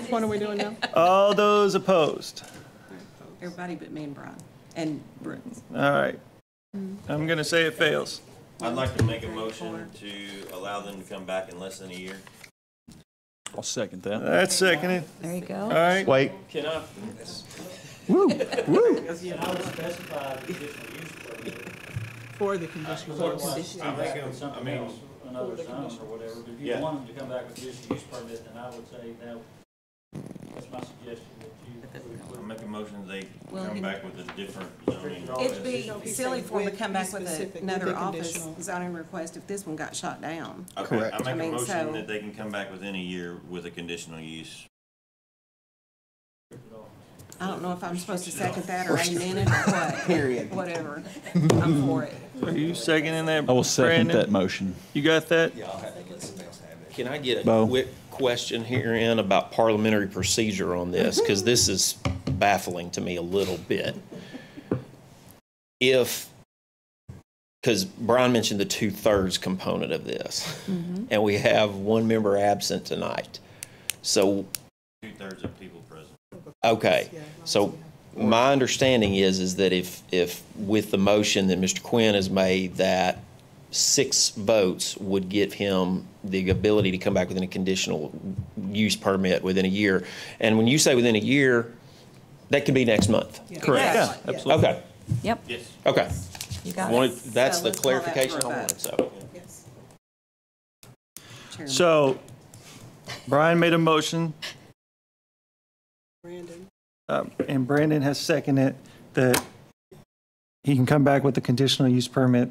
Which one are we doing now? All those opposed? Everybody but me and Brian, and Bruce. All right. I'm going to say it fails. I'd like to make a motion to allow them to come back in less than a year. I'll second that. That's seconded. There you All go. right. Wait, Can I? See, and I would specify the conditional use permit. For the conditional use. I'm thinking of something else, another zone or whatever, but if you Yeah. wanted to come back with conditional use permit, then I would say that, that's my suggestion, that you. I'll make a motion they Well, come it- back with a different zoning. It'd be It'd be silly for them to with- come be back with specific a- with another the office conditional. zoning request if this one got shot down. Okay, Correct. I I make a mean, so- motion that they can come back within a year with a conditional use. I don't know if I'm supposed to second that or amen it or what. Period. Whatever. I'm for it. Are you seconding that? I will second Brandon? that motion. You got that? Can I get Bo. a quick question here in about parliamentary procedure on this? Because this is baffling to me a little bit. If, because Brian mentioned the two-thirds component of this, and we have one member absent tonight. So, Two-thirds of people present. okay, so my understanding is, is that if, if with the motion that Mr. Quinn has made, that six votes would give him the ability to come back within a conditional use permit within a year. And when you say within a year, that could be next month. Correct. Yeah, Exactly. absolutely. Okay, Yep, Yes. okay. you got it. Wanted- That's So the let's call that for a clarification I vote. wanted, so. Yes. Chairman. So Brian made a motion, Brandon. uh, and Brandon has seconded that he can come back with a conditional use permit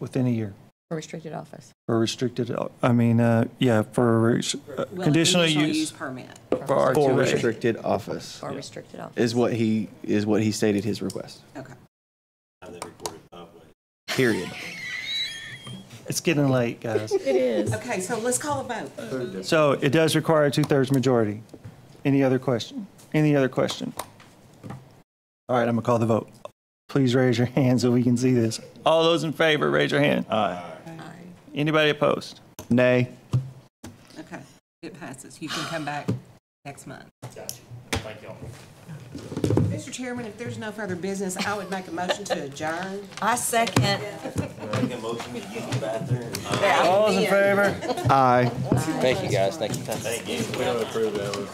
within a year For Restricted office. for restricted, I mean, uh, yeah, for res- uh, Well, a conditional use. Permit. For our for Correct. restricted office For restricted office. is what he, is what he stated his request, Okay. Have that recorded publicly. period. It's getting late, guys. It is. Okay, so let's call a vote. So it does require a two-thirds majority. Any other question? Any other question? All right, I'm gonna call the vote. Please raise your hand so we can see this. All those in favor, raise your hand. Aye. Anybody opposed? Nay. Okay, it passes. You can come back next month. Mr. Chairman, if there's no further business, I would make a motion to adjourn. I second. Make a motion to use the bathroom. All those in favor? Aye. Thank you, guys. Thank you. Thank you.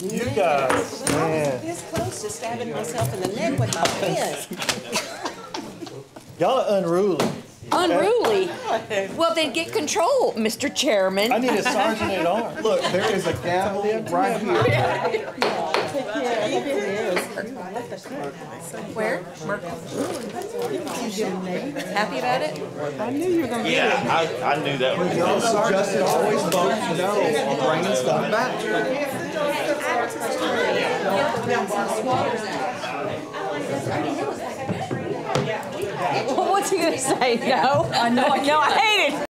You guys. This close to stabbing myself in the neck with my fist. Y'all are unruly. Unruly. Well, then get control, Mr. Chairman. I need a sergeant at arms. Look, there is a gavel right here. Where? Merkel. Happy about it? Yeah, I, I knew that was. Justin always votes no on bringing stuff back. Well, what's he gonna say? No? I know, I know.